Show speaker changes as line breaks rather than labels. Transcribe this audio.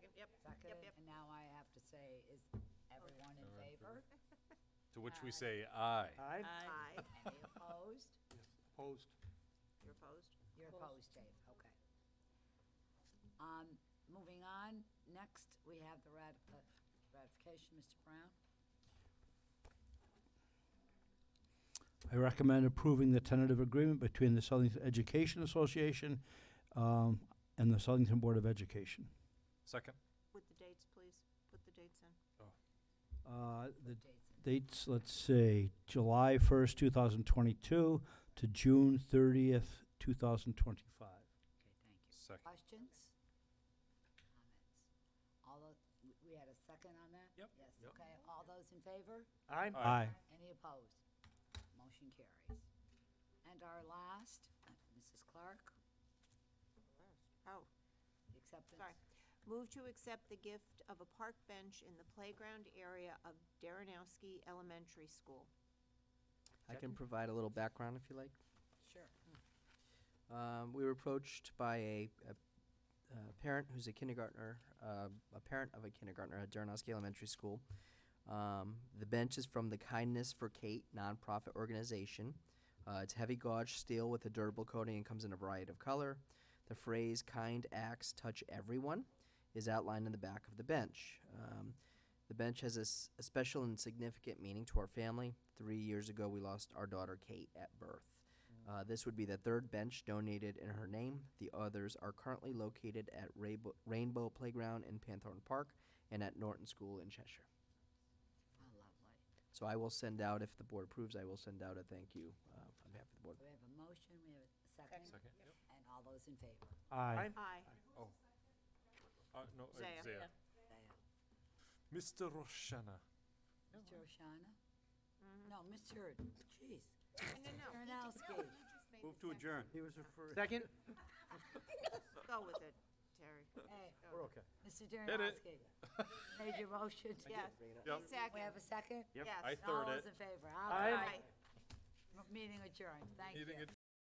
seconded,
yep.
Um, and now I have to say, is everyone in
Everyone in
favor?
To which we say aye.
Aye?
Aye.
Any opposed?
Opposed?
You're opposed?
You're opposed, Dave, okay. Um, moving on, next, we have the rat- uh, ratification, Mr. Brown.
I recommend approving the tentative agreement between the Southington Education Association um, and the Southington Board of Education.
Second?
With the dates, please. Put the dates in.
Uh, The
Dates in.
dates, let's say, July 1st, 2022 to June 30th,
Okay,
2025.
thank you.
Second.
Questions? Comments? All of, we- we had a second on that?
Yep.
Yes,
Yep.
okay, all those in favor?
Aye?
Aye.
Any opposed? Motion carries. And our last, Mrs. Clark,
Oh,
acceptance.
sorry. Move to accept the gift of a park bench in the playground area of Darrenowski Elementary School.
I can provide a little background if you like.
Sure. Oh,
Um, we were approached by a, a, a parent who's a kindergartner, uh, a parent of a kindergartner at Darrenowski Elementary School. Um, the bench is from the Kindness for Kate nonprofit organization. Uh, it's heavy gauge steel with a durable coating and comes in a variety of color. The phrase "kind acts touch everyone" is outlined in the back of the bench. Um, the bench has a, s- a special and significant meaning to our family. Three years ago, we lost our daughter Kate at birth. Uh, this would be the third bench donated in her name. The others are currently located at Rainbow, Rainbow Playground in Panthorn Park and at Norton School in Cheshire.
Oh, lovely.
So I will send out, if the board approves, I will send out a thank you uh, on behalf of the board.
We have a motion, we have a second.
Second, yep.
And all those in favor?
Aye?
Aye.
Oh. Uh, no, uh,
Zaya.
Zaya.
They are.
Mr. Roshana.
Mr. O'Shana?
Mm-hmm.
No, Mr., jeez,
No, no, no.
Baranowski.
Move to adjourn.
He was referring. Second?
Go with it, Terry.
Hey,
We're okay.
Mr.
it.
Darrenowski. Made your motion.
Yeah.
Yep.
We have a second?
Second. Yes.
I
All
third
those
it.
in favor?
Aye.
Meeting adjourned, thank you.
Meeting adjourned.